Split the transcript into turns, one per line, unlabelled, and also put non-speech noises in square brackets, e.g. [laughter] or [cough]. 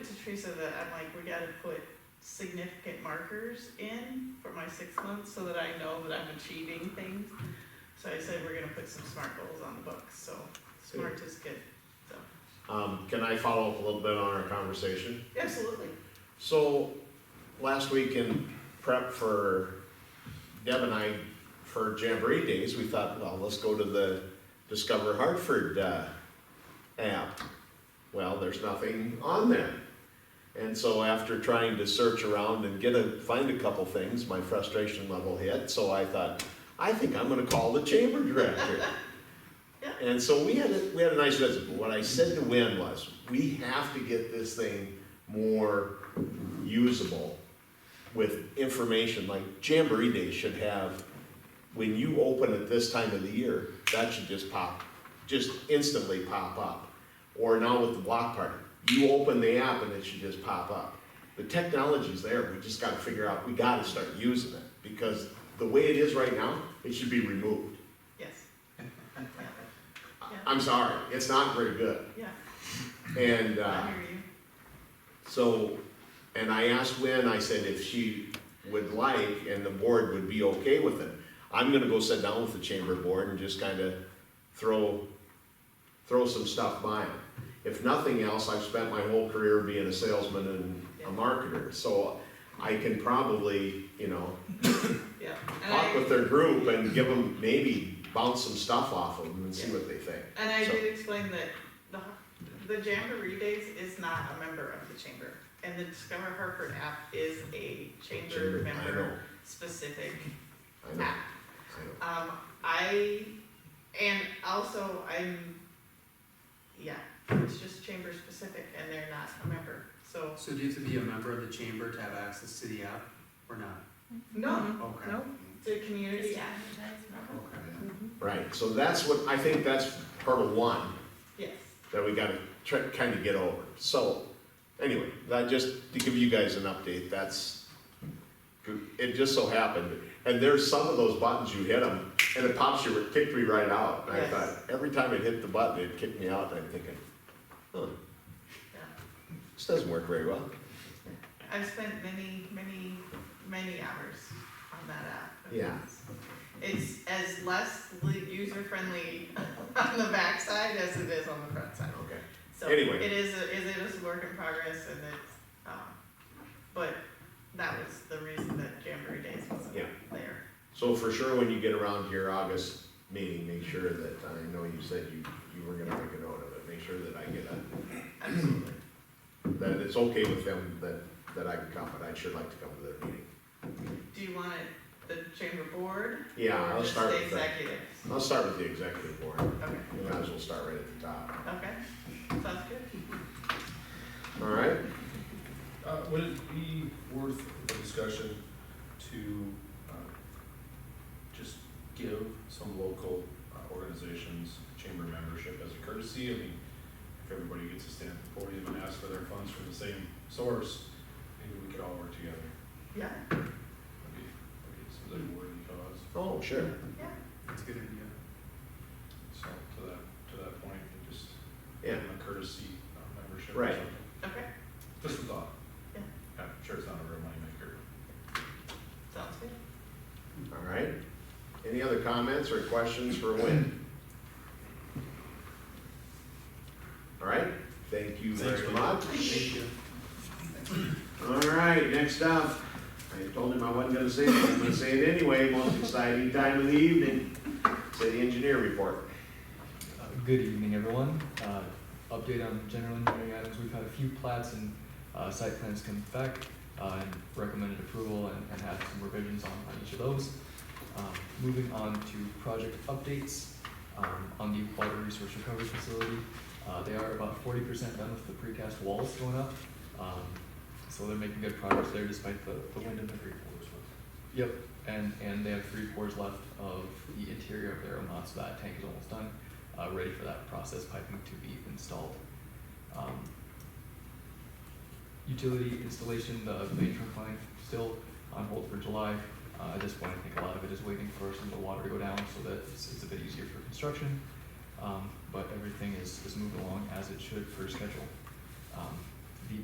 to Teresa that I'm like, we gotta put significant markers in for my six months so that I know that I'm achieving things. So I said, we're gonna put some SMART goals on the books, so SMART is good, so,
Um, can I follow up a little bit on our conversation?
absolutely.
So, last week in prep for Deb and I, for Jamboree Days, we thought, well, let's go to the Discover Hartford, uh, app. Well, there's nothing on there. And so after trying to search around and get a, find a couple things, my frustration level hit, so I thought, I think I'm gonna call the chamber director.
Yeah.
And so we had, a- we had a nice visit, but what I said to Win was, we have to get this thing more usable with information, like Jamboree Day should have, when you open it this time of the year, that should just pop, just instantly pop up. Or now with the block party, you open the app and it should just pop up. The technology's there, we just gotta figure out, we gotta start using it, because the way it is right now, it should be removed.
Yes,
I- I'm sorry, it's not very good,
yeah,
and, uh.
I hear you,
So, and I asked Lynn, I said if she would like and the board would be okay with it. I'm gonna go sit down with the chamber board and just kinda throw, throw some stuff by them. If nothing else, I've spent my whole career being a salesman and a marketer, so I can probably, you know,
yeah. And I-
talk with their group and give them, maybe bounce some stuff off of them and see what they think.
And I
So-
did explain that the, the Jamboree Days is not a member of the chamber, and the Discover Hartford app is a chamber
Chamber, I know,
member specific
I know,
app.
I know.
Um, I, and also I'm, yeah, it's just chamber specific and they're not a member, so,
So do you have to be a member of the chamber to have access to the app or not?
no,
Okay.
no, the Mm-hmm. community.
Just advertise, no?
Okay.
Right, so that's what, I think that's part of one.
Yes,
that we gotta try, kinda get over. So, anyway, that just, to give you guys an update, that's, it just so happened. And there's some of those buttons, you hit them, and it pops you, it kicked me right out. And I
Yes.
thought, every time it hit the button, it kicked me out, and I'm thinking, huh,
yeah,
this doesn't work very well.
I've spent many, many, many hours on that app.
Yeah.
It's as less user friendly [laughs] on the backside as it is on the front side.
Okay.
So
Anyway.
It is, a- is it is a work in progress and it's, um, but that was the reason that Jamboree Days wasn't
Yeah.
there.
So for sure, when you get around to your August meeting, make sure that, I know you said you, you were gonna make a note of it, make sure that I get a,
Absolutely.
that it's okay with them that, that I can come, but I'd sure like to come to their meeting.
Do you want it, the chamber board?
Yeah,
or
I'll
just
start
the
with that.
executives?
I'll start with the executive board.
Okay,
We might as well start right at the top.
okay, sounds good.
All right?
Uh, would it be worth a discussion to, uh, just give some local uh, organizations chamber membership as a courtesy? I mean, if everybody gets to stand at the podium and ask for their funds from the same source, maybe we could all work together.
Yeah,
That'd be, that'd be, it seems like a worthy cause.
Oh, sure.
yeah,
That's a good idea.
So to that, to that point, and just give
Yeah,
them a courtesy uh, membership or
Right.
something.
okay,
Just a thought.
Yeah.
I'm sure it's not a real moneymaker.
sounds good.
all right. Any other comments or questions for Wynn? All right, thank you
Thanks,
very
Wynn.
much.
Thank you.
All right, next up, I told him I wasn't gonna say it, but I'm gonna say it anyway, most exciting time of the evening, city engineer report.
Uh, Good evening, everyone. Uh, Update on general engineering items. We've had a few plats and uh, site plans come back uh, and recommended approval and and had some revisions on on each of those. Um, Moving on to project updates um, on the water resource recovery facility. uh, They are about forty percent done with the precast walls going up. Um, So they're making good progress there despite the the wind and the free pours. Yep, and, and they have three pours left of the interior of their amount, so that tank is almost done, uh, ready for that process piping to be installed. Um, Utility installation, the main trunk line still on hold for July. Uh, at this point, I think a lot of it is waiting for some of the water to go down so that it's, it's a bit easier for construction. Um, but everything is, is moving along as it should for schedule. Um,